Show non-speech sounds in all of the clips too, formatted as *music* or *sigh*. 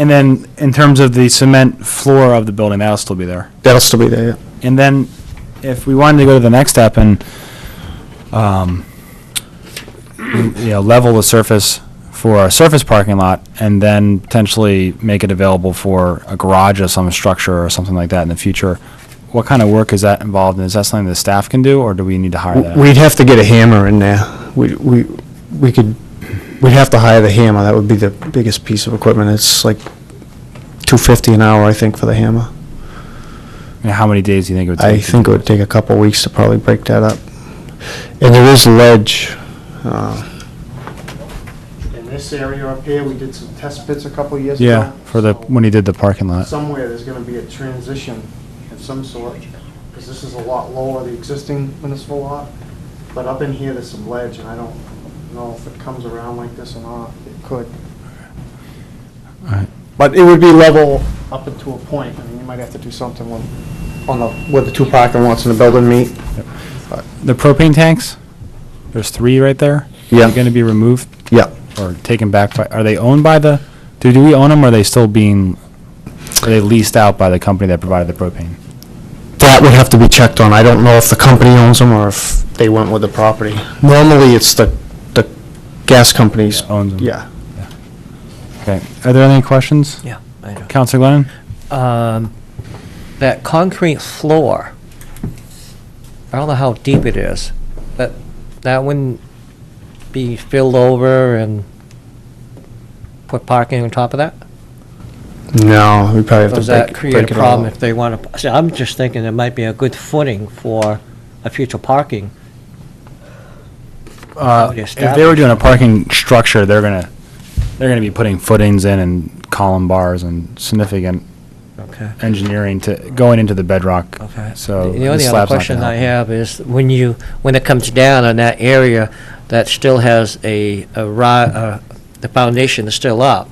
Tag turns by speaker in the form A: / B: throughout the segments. A: And then, in terms of the cement floor of the building, that'll still be there.
B: That'll still be there, yeah.
A: And then, if we wanted to go to the next step and, um, you know, level the surface for a surface parking lot, and then potentially make it available for a garage or some structure or something like that in the future, what kind of work is that involved in? Is that something the staff can do, or do we need to hire that?
B: We'd have to get a hammer in there. We, we, we could, we'd have to hire the hammer. That would be the biggest piece of equipment. It's like 250 an hour, I think, for the hammer.
A: I mean, How many days do you think it would
B: I
A: take? to
B: think it
A: do
B: would take a couple of weeks to probably break that up. And there is ledge. uh,
C: In this area up here, we did some test pits a couple years ago.
A: Yeah, for the, when uh, he did the parking lot.
C: Somewhere, there's gonna be a transition of some sort, because this is a lot lower, the existing municipal lot. But up in here, there's some ledge, and I don't know if it comes around like this or not. It could.
A: Alright.
C: But it would be level up until a point. I mean, you might have to do something with, on the, where the two parking lots in the building meet.
A: The propane tanks, there's three right there?
B: Yeah.
A: Are going to be removed
B: Yeah,
A: or taken back by, are they owned by the, do, do we own them or are they still being, are they leased out by the company that provided the propane?
B: that would have to be checked on. I don't know if the company owns them or if they went with the property. Normally, it's the, the gas companies.
A: Owns them?
B: Yeah.
A: Okay. Are there any questions?
D: Yeah, I know.
A: Counselor Glennon?
D: Um, that concrete floor, I don't know how deep it is, but that wouldn't be filled over and put parking on top of that?
B: No, we probably have to
D: Does
B: break
D: that
B: break it all.
D: create a problem
B: up.
D: if they want to, see, I'm just thinking it might be a good footing for a future parking.
A: Uh,
D: Already
A: if they were doing a parking structure, they're going to, they're going to be putting footings in and column bars and significant
D: Okay.
A: engineering to, going into the bedrock.
D: Okay.
A: So.
D: The
A: the
D: only other
A: slab's not gonna
D: question I
A: help.
D: have is, when you, when it comes down on that area that still has a, a ri, uh, the foundation is still up,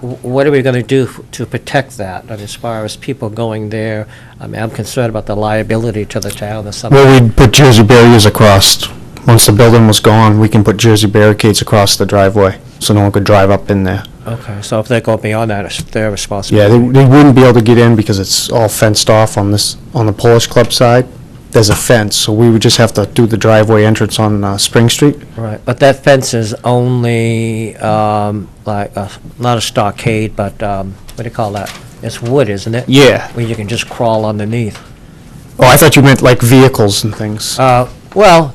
D: wh- what are we gonna do f- to protect that, And as far as people going there? I mean, I'm concerned about the liability to the town or something.
B: Well, we'd put Jersey barriers across. Once the building was gone, we can put Jersey barricades across the driveway, so no one could drive up in there.
D: Okay, so if they go beyond that, it's their
B: Yeah, they,
D: responsibility.
B: they wouldn't be able to get in because it's all fenced off on this, on the Polish Club side. There's a fence, so we would just have to do the driveway entrance on, uh, Spring Street.
D: Right, but that fence is only, um, like, a- not a stockade, but, um, what do you call that? It's wood, isn't it?
B: Yeah.
D: Where you can just crawl underneath.
B: Oh, I thought you meant like vehicles and things.
D: Uh, Well,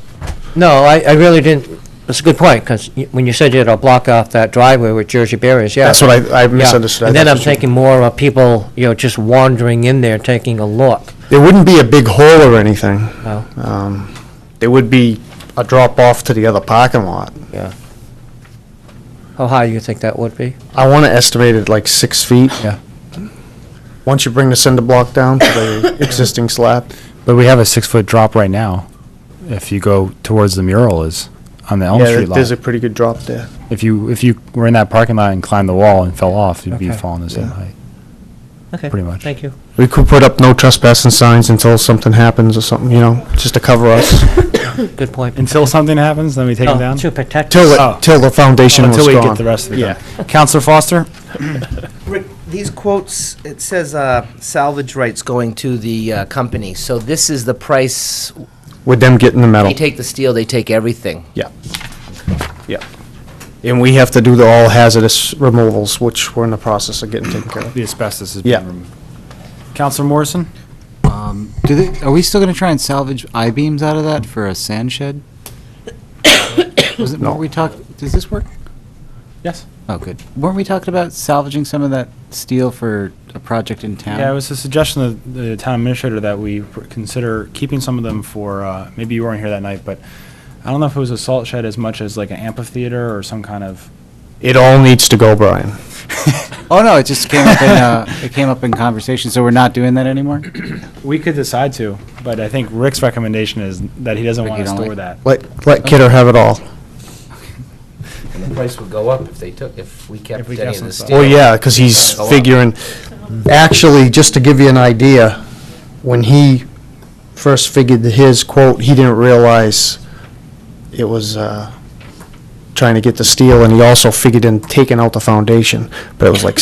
D: no, I, I really didn't, that's a good point, because when you said you had to block off that driveway with Jersey barriers, yeah.
B: That's what I, I
D: yeah.
B: misunderstood. I
D: And then
B: thought
D: I'm
B: that's what you-
D: thinking more of people, you know, just wandering in there, taking a look.
B: There wouldn't be a big hole or anything.
D: Oh,
B: Um, there would be a drop off to the other parking lot.
D: yeah. How high you think that would be?
B: I want to estimate it like six feet.
A: Yeah.
B: Once you bring the cinder block down to
A: *coughs*
B: the existing slab,
A: But we have a six-foot drop right now, if you go towards the mural is, on the Elm
B: yeah,
A: Street lot.
B: there's a pretty good drop there.
A: If you, if you were in that parking lot and climbed the wall and fell off, you'd be
D: Okay.
A: falling the same
B: Yeah.
A: height.
D: Okay,
A: Pretty much.
D: Thank you.
B: We could put up no trespassing signs until something happens or something, you know, just to cover
A: *laughs*
B: us.
D: Good point.
A: Until something happens, then we take them
D: Oh,
A: down?
D: To protect.
B: Till,
D: us.
A: Oh.
B: it, till the foundation
A: Until
B: was
A: we
B: gone.
A: get the rest of it
B: Yeah.
A: done. Counselor Foster?
E: Rick, these quotes, it says uh, salvage rights going to the uh, company, so this is the price,
B: With them getting the metal.
E: they take the steel, they take everything.
B: Yeah. Yeah. And we have to do the all hazardous removals, which we're in the process of getting taken care of.
A: The asbestos is
B: Yeah.
A: being removed. Counselor Morrison?
F: Do they, are we still gonna try and salvage I-beams out of that for a sand shed? Was it,
B: No.
F: weren't we talk, does this work?
A: Yes.
F: Oh, good. Weren't we talking about salvaging some of that steel for a project in town?
A: Yeah, it was a suggestion of the town administrator that we pr- consider keeping some of them for, uh, maybe you weren't here that night, but I don't know if it was a salt shed as much as like an amphitheater or some kind *laughs* of
B: It all needs to go, Brian.
F: Oh, no, it just came up in, uh, it came up in conversation, so we're not doing that anymore?
A: We could decide to, but I think Rick's recommendation is that he doesn't
F: Rick,
A: want
F: you
A: to
F: don't
A: store
F: like-
A: that.
B: Let, let Kidder have it all.
E: And the price would go up if they took, if we
A: If
E: kept
A: we
E: any
A: kept
E: of the
A: some-
E: steel.
B: Well, Oh, yeah, because he's
E: Go up.
B: figuring, actually, just to give you an idea, when he first figured his quote, he didn't realize it was uh, trying to get the steel, and he also figured in taking out the foundation, but it was like